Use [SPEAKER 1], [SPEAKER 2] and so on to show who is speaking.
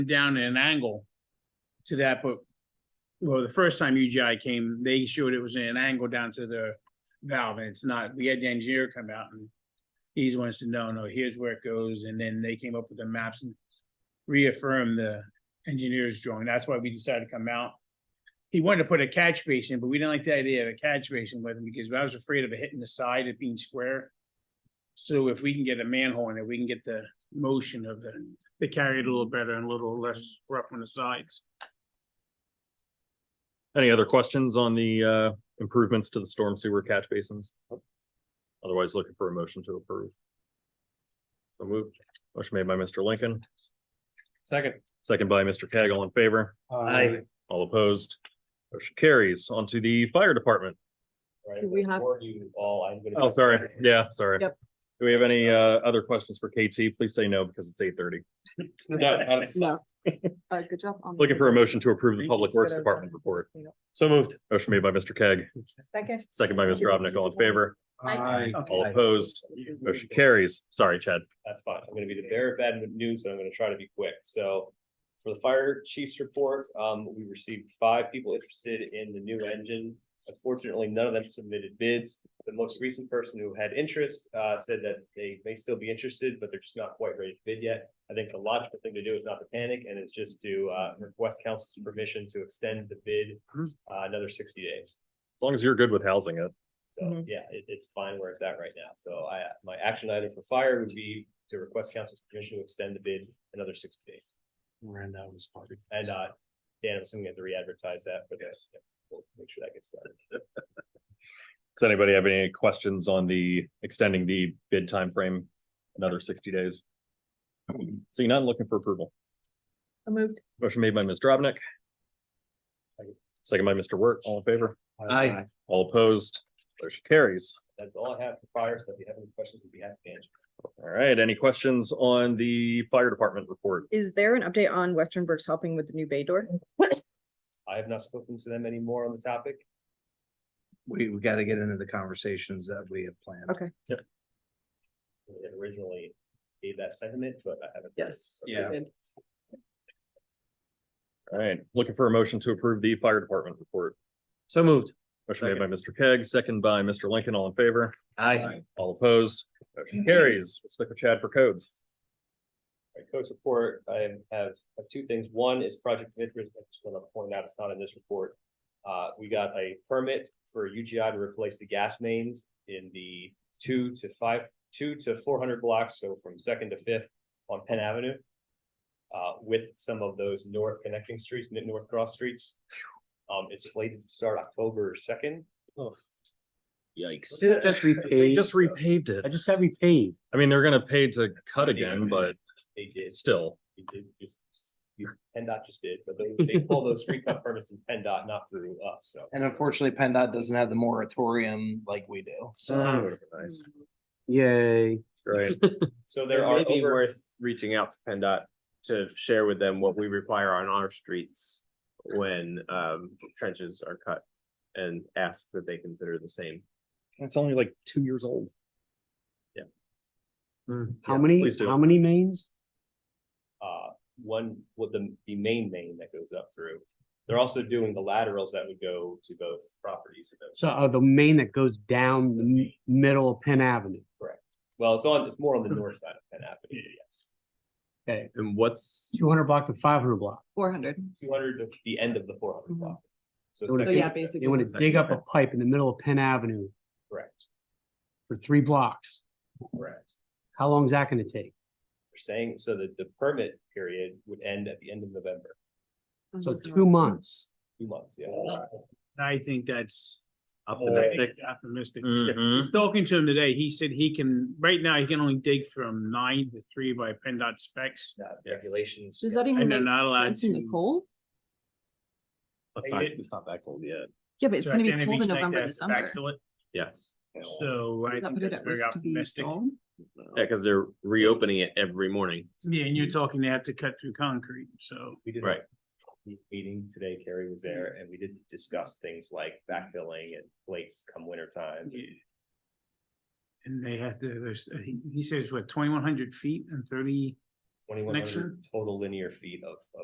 [SPEAKER 1] down at an angle to that, but well, the first time UGI came, they showed it was in an angle down to the valve and it's not. We had the engineer come out and he's one said, no, no, here's where it goes. And then they came up with the maps and reaffirmed the engineer's drawing. That's why we decided to come out. He wanted to put a catch basin, but we didn't like the idea of a catch basin with him because I was afraid of it hitting the side of being square. So if we can get a manhole in it, we can get the motion of the, they carry it a little better and a little less rough on the sides.
[SPEAKER 2] Any other questions on the uh improvements to the storm sewer catch basins? Otherwise looking for a motion to approve. So moved. Motion made by Mr. Lincoln,
[SPEAKER 3] Second.
[SPEAKER 2] second by Mr. Keg, all in favor,
[SPEAKER 3] Aye.
[SPEAKER 2] all opposed. Motion carries on to the fire department.
[SPEAKER 4] Do we have-
[SPEAKER 3] Before you all, I'm gonna.
[SPEAKER 2] Oh, sorry. Yeah, sorry.
[SPEAKER 4] Yep.
[SPEAKER 2] Do we have any uh other questions for KT? Please say no because it's eight thirty.
[SPEAKER 4] No. Uh, good job. on-
[SPEAKER 2] Looking for a motion to approve the
[SPEAKER 1] Thank
[SPEAKER 2] Public
[SPEAKER 4] uh,
[SPEAKER 2] Works Department report.
[SPEAKER 3] So moved.
[SPEAKER 2] Motion made by Mr. Keg,
[SPEAKER 4] Second.
[SPEAKER 2] second by Mr. Robnick, all in favor,
[SPEAKER 4] Aye.
[SPEAKER 2] all opposed. Motion carries. Sorry, Chad.
[SPEAKER 3] That's fine. I'm gonna be the bearer of bad news, but I'm gonna try to be quick. So for the fire chief's report, um, we received five people interested in the new engine. Unfortunately, none of them submitted bids. The most recent person who had interest, uh, said that they may still be interested, but they're just not quite ready to bid yet. I think the logical thing to do is not to panic and it's just to, uh, request council's permission to extend the bid, uh, another sixty days.
[SPEAKER 2] As long as you're good with housing it.
[SPEAKER 3] So,
[SPEAKER 4] Mhm.
[SPEAKER 3] yeah, it, it's fine where it's at right now. So I, my action item for fire would be to request council's permission to extend the bid another sixty days.
[SPEAKER 5] Miranda was part of it.
[SPEAKER 3] And, uh, Dan, I'm assuming we have to re-advertise that, but yes, we'll make sure that gets done.
[SPEAKER 2] Does anybody have any questions on the extending the bid timeframe another sixty days? Seeing none, looking for approval.
[SPEAKER 4] I Moved.
[SPEAKER 2] Motion made by Ms. Dropnik. Second by Mr. Wirt, all in favor,
[SPEAKER 5] Aye.
[SPEAKER 2] all opposed, motion carries.
[SPEAKER 3] That's all I have for fire. So if you have any questions, we'd be happy to answer.
[SPEAKER 2] All right, any questions on the fire department report?
[SPEAKER 4] Is there an update on Western Burke's helping with the new bay door?
[SPEAKER 3] I have not spoken to them anymore on the topic.
[SPEAKER 5] We, we gotta get into the conversations that we have planned.
[SPEAKER 4] Okay.
[SPEAKER 3] We had originally gave that sentiment, but I haven't.
[SPEAKER 4] Yes.
[SPEAKER 5] Yeah.
[SPEAKER 2] All right, looking for a motion to approve the fire department report.
[SPEAKER 3] So moved.
[SPEAKER 2] Motion made by Mr. Keg, second by Mr. Lincoln, all in favor,
[SPEAKER 3] Aye.
[SPEAKER 2] all opposed, motion carries. We'll Stick with Chad for codes.
[SPEAKER 3] Right, coach report, I have, have two things. One is project of interest, I just want to point out, it's not in this report. Uh, we got a permit for UGI to replace the gas mains in the two to five, two to four hundred blocks, so from second to fifth on Penn Avenue. Uh, with some of those north connecting streets, mid- north cross streets. Um, it's slated to start October second.
[SPEAKER 1] Yikes.
[SPEAKER 5] Just repaved.
[SPEAKER 2] Just repaved it.
[SPEAKER 5] I just got repaved.
[SPEAKER 2] I mean, they're gonna pay to cut again, but
[SPEAKER 3] They did,
[SPEAKER 2] still,
[SPEAKER 3] they did, just, PennDOT just did, but they, they pull those street cut permits in PennDOT, not through us, so.
[SPEAKER 6] And unfortunately, PennDOT doesn't have the moratorium like we do. So
[SPEAKER 2] nice,
[SPEAKER 5] Mm-hmm. Yay.
[SPEAKER 2] right?
[SPEAKER 3] So there
[SPEAKER 7] It
[SPEAKER 3] are
[SPEAKER 7] may be
[SPEAKER 3] over,
[SPEAKER 7] worth reaching out to PennDOT to share with them what we require on our streets when um trenches are cut and ask that they consider the same.
[SPEAKER 2] It's only like two years old.
[SPEAKER 5] How
[SPEAKER 2] Yeah,
[SPEAKER 5] many,
[SPEAKER 2] please do.
[SPEAKER 5] how many mains?
[SPEAKER 3] uh, one, with the, the main main that goes up through. They're also doing the laterals that would go to both properties. of those.
[SPEAKER 5] So uh, the main that goes down the m- middle of Penn Avenue.
[SPEAKER 3] Well, it's on, it's more on the north side of Penn Avenue, yes.
[SPEAKER 5] Okay,
[SPEAKER 7] And what's,
[SPEAKER 5] two hundred block to five hundred block.
[SPEAKER 4] Four hundred.
[SPEAKER 3] Two hundred to the end of the four hundred block.
[SPEAKER 5] So
[SPEAKER 4] So
[SPEAKER 5] Okay.
[SPEAKER 4] Oh, yeah,
[SPEAKER 5] They
[SPEAKER 4] basically.
[SPEAKER 5] want to dig up a pipe in the middle of Penn Avenue
[SPEAKER 3] Correct,
[SPEAKER 5] for three blocks.
[SPEAKER 3] correct.
[SPEAKER 5] How long is that gonna take?
[SPEAKER 3] They're saying, so that the permit period would end at the end of November,
[SPEAKER 5] So two months.
[SPEAKER 3] two months, yeah.
[SPEAKER 4] Oh,
[SPEAKER 1] I think that's
[SPEAKER 7] Optimistic.
[SPEAKER 1] Optimistic.
[SPEAKER 2] Mhm.
[SPEAKER 4] Mm-hmm.
[SPEAKER 1] I was Talking to him today, he said he can, right now, he can only dig from nine to three by PennDOT specs.
[SPEAKER 3] Uh, Regulations.
[SPEAKER 4] Does that
[SPEAKER 1] And
[SPEAKER 4] even
[SPEAKER 1] they're
[SPEAKER 4] make
[SPEAKER 1] not allowed
[SPEAKER 4] sense in the
[SPEAKER 1] to-
[SPEAKER 4] cold?
[SPEAKER 7] it's not, it's not that cold yet,
[SPEAKER 4] Yeah, but it's
[SPEAKER 1] So
[SPEAKER 4] gonna be
[SPEAKER 1] then if
[SPEAKER 4] cold
[SPEAKER 1] he's
[SPEAKER 4] in
[SPEAKER 1] like
[SPEAKER 4] November,
[SPEAKER 1] that,
[SPEAKER 4] December.
[SPEAKER 1] backfill it.
[SPEAKER 7] yes.
[SPEAKER 1] So I
[SPEAKER 4] Does that
[SPEAKER 1] think
[SPEAKER 4] put it
[SPEAKER 1] that's
[SPEAKER 4] at
[SPEAKER 1] very
[SPEAKER 4] risk to be
[SPEAKER 1] optimistic.
[SPEAKER 4] sold?
[SPEAKER 7] Yeah, because they're reopening it every morning.
[SPEAKER 1] Yeah, and you're
[SPEAKER 5] Mm-hmm.
[SPEAKER 1] talking, they have to cut through concrete, so.
[SPEAKER 3] We did. a
[SPEAKER 7] Right.
[SPEAKER 3] Meeting today, Carrie was there and we did discuss things like backfilling and plates come winter time.
[SPEAKER 1] yeah. And they have to, there's, I think, he says, what, twenty-one hundred feet and thirty
[SPEAKER 3] Twenty-one
[SPEAKER 1] Next year?
[SPEAKER 3] hundred total linear feet of, of